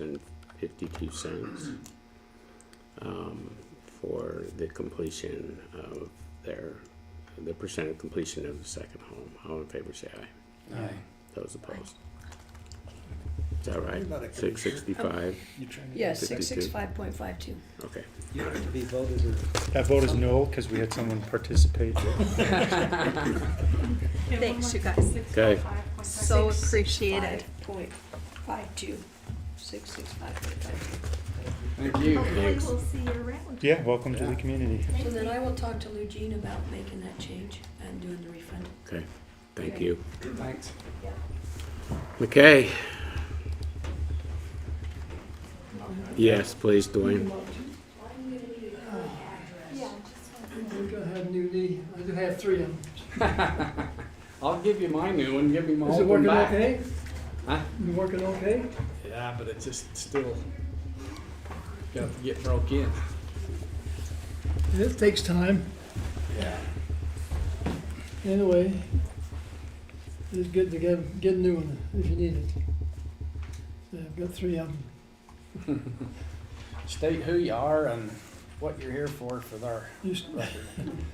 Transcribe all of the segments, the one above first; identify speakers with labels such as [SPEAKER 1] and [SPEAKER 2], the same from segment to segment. [SPEAKER 1] and fifty-two cents um, for the completion of their, the percent of completion of the second home. All in favor, say aye.
[SPEAKER 2] Aye.
[SPEAKER 1] Those opposed? Is that right?
[SPEAKER 3] You're not a
[SPEAKER 1] Six sixty-five,
[SPEAKER 4] Yes,
[SPEAKER 1] Fifty-two.
[SPEAKER 4] six six five point five two.
[SPEAKER 1] okay.
[SPEAKER 3] You have to be voted or.
[SPEAKER 2] That vote is no, because we had someone participate.
[SPEAKER 5] Thanks, you guys.
[SPEAKER 1] Okay.
[SPEAKER 5] So appreciated.
[SPEAKER 4] Point five two, six six five point five
[SPEAKER 3] Thank you.
[SPEAKER 5] Hopefully we'll see you around.
[SPEAKER 2] Yeah, welcome to the community.
[SPEAKER 4] two. So then I will talk to Lou Jean about making that change and doing the refund.
[SPEAKER 1] Okay, thank you.
[SPEAKER 3] Thanks.
[SPEAKER 1] McKay? Yes, please, Dwayne.
[SPEAKER 6] I don't have new knee. I do have three of them.
[SPEAKER 3] I'll give you my new one, give me my
[SPEAKER 6] Is it
[SPEAKER 3] old one
[SPEAKER 6] working
[SPEAKER 3] back.
[SPEAKER 6] okay?
[SPEAKER 3] Huh?
[SPEAKER 6] You working okay?
[SPEAKER 3] Yeah, but it's just still, got to get broke in.
[SPEAKER 6] It takes time.
[SPEAKER 3] Yeah.
[SPEAKER 6] Anyway, it's good to get, get a new one if you need it. So I've got three of them.
[SPEAKER 3] State who you are and what you're here for, for our
[SPEAKER 6] You s-
[SPEAKER 3] record.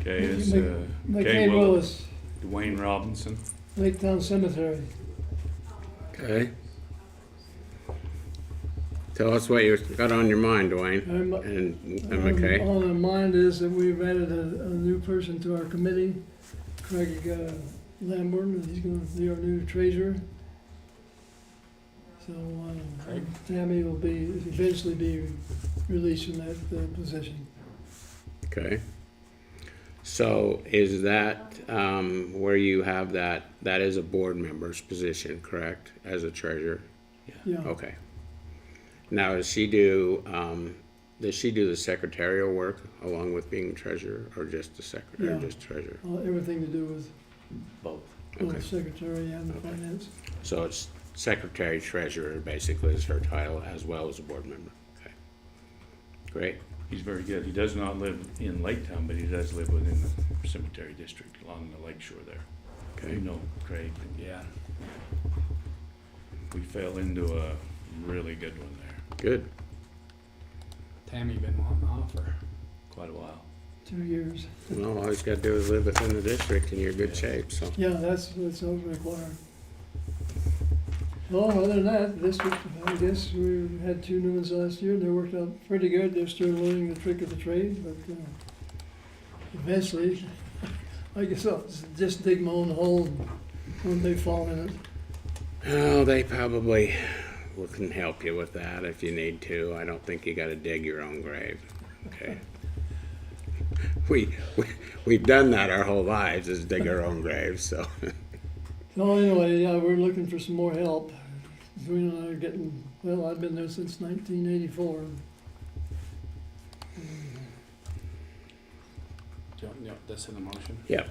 [SPEAKER 7] Okay,
[SPEAKER 6] You
[SPEAKER 7] it's
[SPEAKER 6] make-
[SPEAKER 7] uh,
[SPEAKER 6] McKay
[SPEAKER 7] Kay Willis,
[SPEAKER 6] Willis,
[SPEAKER 7] Dwayne Robinson.
[SPEAKER 6] Lake Town Cemetery.
[SPEAKER 1] Okay. Tell us what you got on your mind, Dwayne,
[SPEAKER 6] I'm,
[SPEAKER 1] and and
[SPEAKER 6] um,
[SPEAKER 1] McKay.
[SPEAKER 6] All in mind is that we've added a, a new person to our committee, Craig uh, Lamborn, and he's gonna be our new treasurer. So, um,
[SPEAKER 3] Craig.
[SPEAKER 6] Tammy will be, eventually be released from that, uh position.
[SPEAKER 1] Okay. So is that, um, where you have that, that is a board member's position, correct, as a treasurer?
[SPEAKER 6] Yeah,
[SPEAKER 1] Okay. Now, does she do, um, does she do the secretarial work along with being treasurer or just the secretary, or
[SPEAKER 6] Yeah.
[SPEAKER 1] just treasurer?
[SPEAKER 6] all- everything to do with
[SPEAKER 1] Both. Okay,
[SPEAKER 6] both secretary and
[SPEAKER 1] Okay.
[SPEAKER 6] finance.
[SPEAKER 1] so it's secretary treasurer basically is her title as well as a board member. Okay. Great,
[SPEAKER 7] He's very good. He does not live in Lake Town, but he does live within the cemetery district along the lake shore there. You
[SPEAKER 1] okay.
[SPEAKER 7] know Craig, and
[SPEAKER 3] Yeah.
[SPEAKER 7] we fell into a really good one there,
[SPEAKER 1] Good,
[SPEAKER 3] Tammy been wanting off for
[SPEAKER 7] quite a while.
[SPEAKER 6] Two years.
[SPEAKER 1] well, all you gotta do is live within the district and you're in good shape, so.
[SPEAKER 6] Yeah, that's, that's all required. Well, other than that, this, was- I guess, we had two new ones last year, they worked out pretty good, they're still learning the trick of the trade, but, uh, eventually, I guess I'll s- just dig my own hole when they fall in it.
[SPEAKER 1] Oh, they probably will- can help you with that if you need to. I don't think you got to dig your own grave. Okay. We, we we've done that our whole lives is dig our own graves. So
[SPEAKER 6] So anyway, yeah, we're looking for some more help. Dwayne and I are getting, well, I've been there since nineteen eighty-four.
[SPEAKER 3] Do you want- you want this in the motion?
[SPEAKER 1] Yep.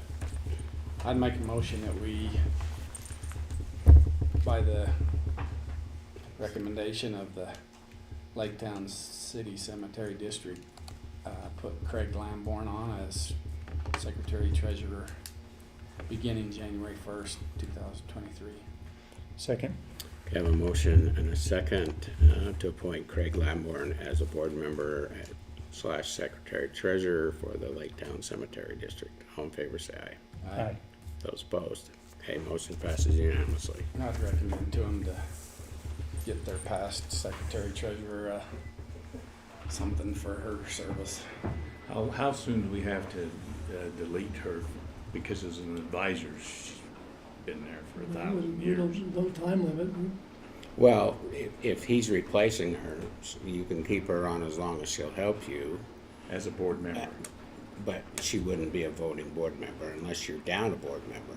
[SPEAKER 3] I'd make a motion that we, by the recommendation of the Lake Town City Cemetery District, uh, put Craig Lamborn on as Secretary Treasurer beginning January first, two thousand twenty-three.
[SPEAKER 2] Second.
[SPEAKER 1] we have a motion and a second uh, to appoint Craig Lamborn as a board member at- slash secretary treasurer for the Lake Town Cemetery District. All in favor, say aye.
[SPEAKER 2] Aye.
[SPEAKER 1] Those opposed. Okay, motion passes unanimously.
[SPEAKER 3] I'd recommend to them to get their past Secretary Treasurer, uh, something for her service.
[SPEAKER 7] How, how soon do we have to uh, delete her? Because as an advisor, she's been there for a thousand
[SPEAKER 6] We don't-
[SPEAKER 7] years.
[SPEAKER 6] No time limit,
[SPEAKER 1] Well, if, if he's replacing her, s- you can keep her on as long as she'll help you,
[SPEAKER 7] As a board member,
[SPEAKER 1] but she wouldn't be a voting board member unless you're down a board member.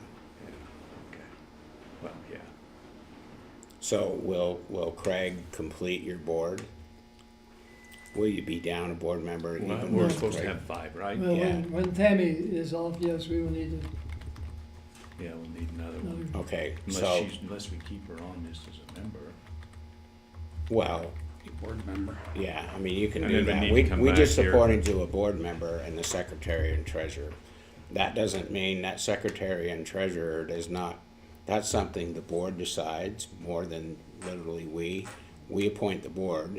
[SPEAKER 7] okay. Well, yeah.
[SPEAKER 1] So will, will Craig complete your board? Will you be down a board member?
[SPEAKER 7] Well,
[SPEAKER 1] even
[SPEAKER 7] We're
[SPEAKER 1] with
[SPEAKER 7] supposed to
[SPEAKER 1] Craig?
[SPEAKER 7] have five, right?
[SPEAKER 6] Well,
[SPEAKER 1] Yeah.
[SPEAKER 6] when, when Tammy is off, yes, we will need
[SPEAKER 7] Yeah, we'll need another one.
[SPEAKER 6] another,
[SPEAKER 1] Okay,
[SPEAKER 7] Unless
[SPEAKER 1] so,
[SPEAKER 7] she's, unless we keep her on this as a member.
[SPEAKER 1] well,
[SPEAKER 3] Board member.
[SPEAKER 1] yeah, I mean, you can
[SPEAKER 7] And
[SPEAKER 1] do
[SPEAKER 7] then we
[SPEAKER 1] that.
[SPEAKER 7] need to
[SPEAKER 1] We,
[SPEAKER 7] come
[SPEAKER 1] we just
[SPEAKER 7] back here.
[SPEAKER 1] supported you a board member and the secretary and treasurer. That doesn't mean that secretary and treasurer does not, that's something the board decides more than literally we. we appoint the board,